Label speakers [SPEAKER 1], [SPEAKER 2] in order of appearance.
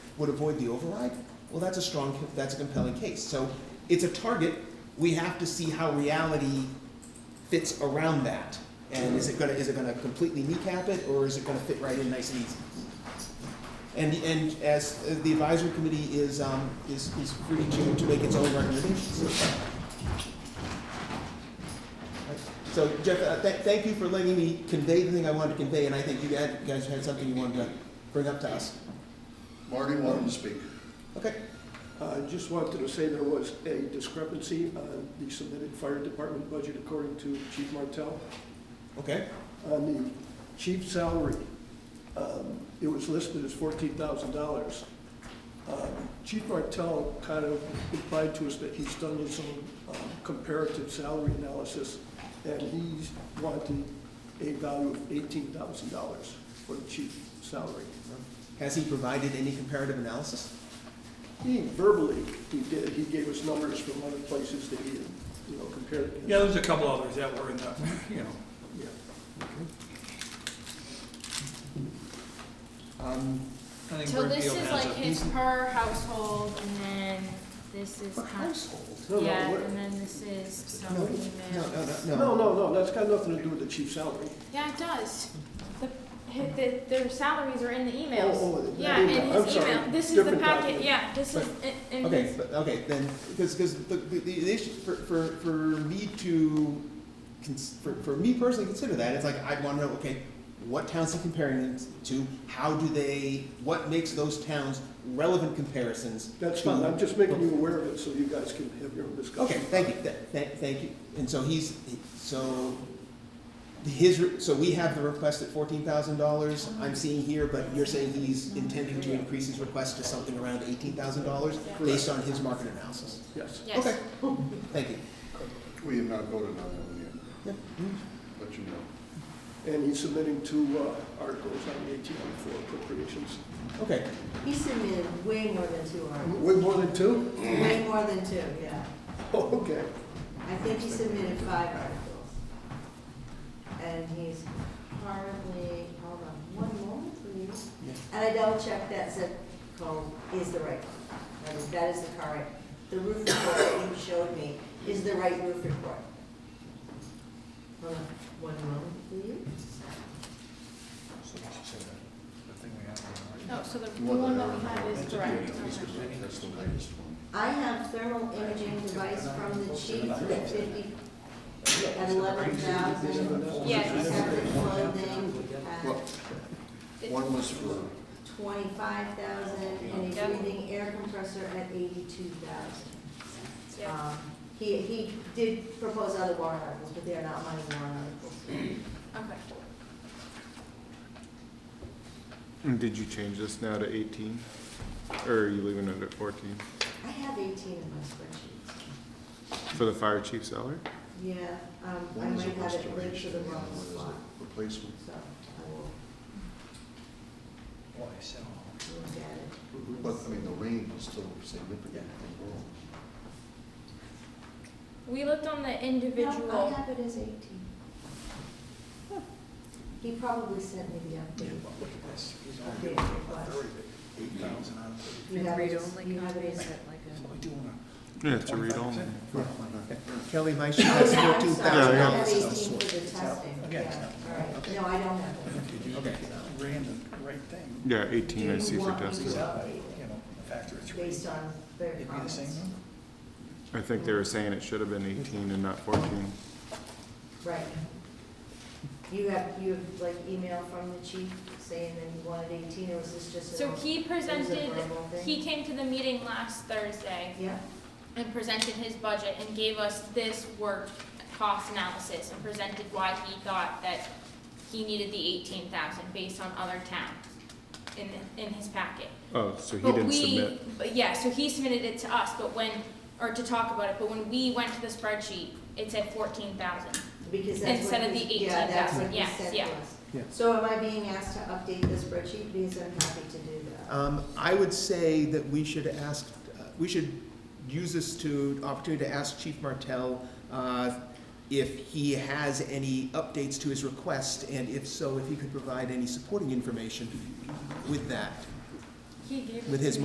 [SPEAKER 1] would avoid the override, well, that's a strong, that's a compelling case. So it's a target, we have to see how reality fits around that. And is it gonna, is it gonna completely kneecap it, or is it gonna fit right in nice and easy? And, and as uh, the advisory committee is, um, is, is free to, to make its own recommendations. So Jeff, uh, tha- thank you for letting me convey the thing I wanted to convey, and I think you guys guys had something you wanted to bring up to us.
[SPEAKER 2] Marty wanted to speak.
[SPEAKER 1] Okay,
[SPEAKER 3] Uh, I just wanted to say there was a discrepancy on the submitted fire department budget according to Chief Martell.
[SPEAKER 1] okay,
[SPEAKER 3] On the chief salary, um, it was listed as fourteen thousand dollars. Um, Chief Martell kind of implied to us that he's done his own um, comparative salary analysis, and he's wanting a value of eighteen thousand dollars for the chief salary.
[SPEAKER 1] has he provided any comparative analysis?
[SPEAKER 3] He verbally, he did, he gave us numbers from other places that he, had, you know, compared. against.
[SPEAKER 4] Yeah, there's a couple others that were in the, you know,
[SPEAKER 3] Yeah.
[SPEAKER 1] Um,
[SPEAKER 4] I think
[SPEAKER 5] So
[SPEAKER 4] Brent
[SPEAKER 5] this
[SPEAKER 4] Beal
[SPEAKER 5] is
[SPEAKER 4] has
[SPEAKER 5] like
[SPEAKER 4] it.
[SPEAKER 5] his per household, and then this is
[SPEAKER 1] For
[SPEAKER 5] kind
[SPEAKER 1] household?
[SPEAKER 3] No, no,
[SPEAKER 5] yeah,
[SPEAKER 3] what-
[SPEAKER 5] and then this is some
[SPEAKER 1] No, no, no,
[SPEAKER 5] emails.
[SPEAKER 1] no, no.
[SPEAKER 3] No, no, no, that's got nothing to do with the chief's salary.
[SPEAKER 5] Yeah, it does. The, hi- the, their salaries are in the emails.
[SPEAKER 3] Oh, oh, the
[SPEAKER 5] Yeah, in
[SPEAKER 3] email. I'm
[SPEAKER 5] his
[SPEAKER 3] sorry.
[SPEAKER 5] email, this is the
[SPEAKER 3] Different
[SPEAKER 5] packet,
[SPEAKER 3] document.
[SPEAKER 5] yeah, this is, in- in
[SPEAKER 1] Okay,
[SPEAKER 5] his,
[SPEAKER 1] but, okay, then, because, because the, the, the issue, for, for, for me to, cons- for, for me personally consider that, it's like, I'd wanna know, okay, what towns he comparing them to, how do they, what makes those towns relevant comparisons?
[SPEAKER 3] That's
[SPEAKER 1] to-
[SPEAKER 3] fine, I'm just making you aware of it so you guys can have your own
[SPEAKER 1] Okay,
[SPEAKER 3] discussion.
[SPEAKER 1] thank you, Th- th- thank you. And so he's, so his, re- so we have the request at fourteen thousand dollars, I'm seeing here, but you're saying he's intending to increase his request to something around eighteen thousand dollars based on his market analysis.
[SPEAKER 3] Yes.
[SPEAKER 5] yes.
[SPEAKER 1] Okay, thank you.
[SPEAKER 2] We have not voted on that one yet. But you know.
[SPEAKER 3] And he's submitting two uh, articles on the eighteen for appropriations.
[SPEAKER 1] Okay,
[SPEAKER 6] He submitted way more than two articles,
[SPEAKER 3] Way more than two?
[SPEAKER 6] way more than two, yeah.
[SPEAKER 3] Oh, okay.
[SPEAKER 6] I think he submitted five articles. And he's currently, hold on one moment, please.
[SPEAKER 1] Yeah.
[SPEAKER 6] And I double checked that zip code is the right one. That is- That is the correct, the roof report that you showed me is the right roof report. Hold on one moment, please.
[SPEAKER 5] No, Oh, so the the
[SPEAKER 2] You want
[SPEAKER 5] one
[SPEAKER 2] the-
[SPEAKER 5] that we have is correct. Okay.
[SPEAKER 2] That's the latest one.
[SPEAKER 6] I have thermal imaging device from the chief at fifty, at eleven thousand.
[SPEAKER 5] Yes.
[SPEAKER 6] Separate clothing
[SPEAKER 2] Well,
[SPEAKER 6] at
[SPEAKER 2] one was for,
[SPEAKER 6] twenty-five thousand, and a
[SPEAKER 5] Yep.
[SPEAKER 6] breathing air compressor at eighty-two thousand. Um,
[SPEAKER 5] Yeah.
[SPEAKER 6] He, he did propose other warrant articles, but they are not money warrant articles.
[SPEAKER 5] Okay.
[SPEAKER 7] And Did you change this now to 18? Or are you leaving it at 14
[SPEAKER 6] I have eighteen in my spreadsheet.
[SPEAKER 7] for the fire chief salary?
[SPEAKER 6] Yeah, um, I
[SPEAKER 2] one
[SPEAKER 6] might
[SPEAKER 2] was a
[SPEAKER 6] have it linked to
[SPEAKER 2] restoration,
[SPEAKER 6] the
[SPEAKER 2] and
[SPEAKER 6] wrong
[SPEAKER 2] one is
[SPEAKER 6] spot,
[SPEAKER 2] a replacement.
[SPEAKER 6] so I will look at it.
[SPEAKER 2] But, I mean, the range is still significant.
[SPEAKER 5] We looked on the
[SPEAKER 6] No, I
[SPEAKER 5] individual,
[SPEAKER 6] have it as eighteen. He probably sent me the update. Updated request. You have it, you have it as.
[SPEAKER 1] Oh,
[SPEAKER 7] Yeah, to read only.
[SPEAKER 1] Kelly Meisch has fourteen thousand
[SPEAKER 6] I have
[SPEAKER 7] $14,000.
[SPEAKER 6] eighteen for the testing, yeah, all right, no, I don't have it.
[SPEAKER 1] Okay,
[SPEAKER 8] random, right thing,
[SPEAKER 7] Yeah, 18 I see for
[SPEAKER 6] Do you
[SPEAKER 7] testing.
[SPEAKER 6] want me
[SPEAKER 8] you know, a factor of
[SPEAKER 6] to update it
[SPEAKER 8] three.
[SPEAKER 6] based on their
[SPEAKER 8] It'd be the
[SPEAKER 6] comments?
[SPEAKER 8] same number.
[SPEAKER 7] I think they were saying it should have been 18 and not 14.
[SPEAKER 6] Right. You have, you have like email from the chief saying that he wanted eighteen, or was this just?
[SPEAKER 5] so
[SPEAKER 6] an-
[SPEAKER 5] he
[SPEAKER 6] it was a
[SPEAKER 5] presented,
[SPEAKER 6] verbal thing?
[SPEAKER 5] he came to the meeting last Thursday.
[SPEAKER 6] Yeah,
[SPEAKER 5] and presented his budget and gave us this work cost analysis and presented why he thought that he needed the eighteen thousand based on other towns in, in his packet.
[SPEAKER 7] Oh, so he
[SPEAKER 5] But
[SPEAKER 7] didn't
[SPEAKER 5] we-
[SPEAKER 7] submit.
[SPEAKER 5] But yeah, so he submitted it to us, but when, or to talk about it, but when we went to the spreadsheet, it said fourteen thousand.
[SPEAKER 6] because that's
[SPEAKER 5] Instead
[SPEAKER 6] what
[SPEAKER 5] of
[SPEAKER 6] he,
[SPEAKER 5] the
[SPEAKER 6] yeah, that's what
[SPEAKER 5] 18,000,
[SPEAKER 6] he
[SPEAKER 5] yes,
[SPEAKER 6] sent
[SPEAKER 5] yeah.
[SPEAKER 6] to us.
[SPEAKER 1] Yeah.
[SPEAKER 6] So am I being asked to update the spreadsheet, because I'm happy to do that?
[SPEAKER 1] um, I would say that we should ask, uh, we should use this to, opportunity to ask Chief Martell, uh, if he has any updates to his request, and if so, if he could provide any supporting information with that,
[SPEAKER 5] He gave
[SPEAKER 1] with his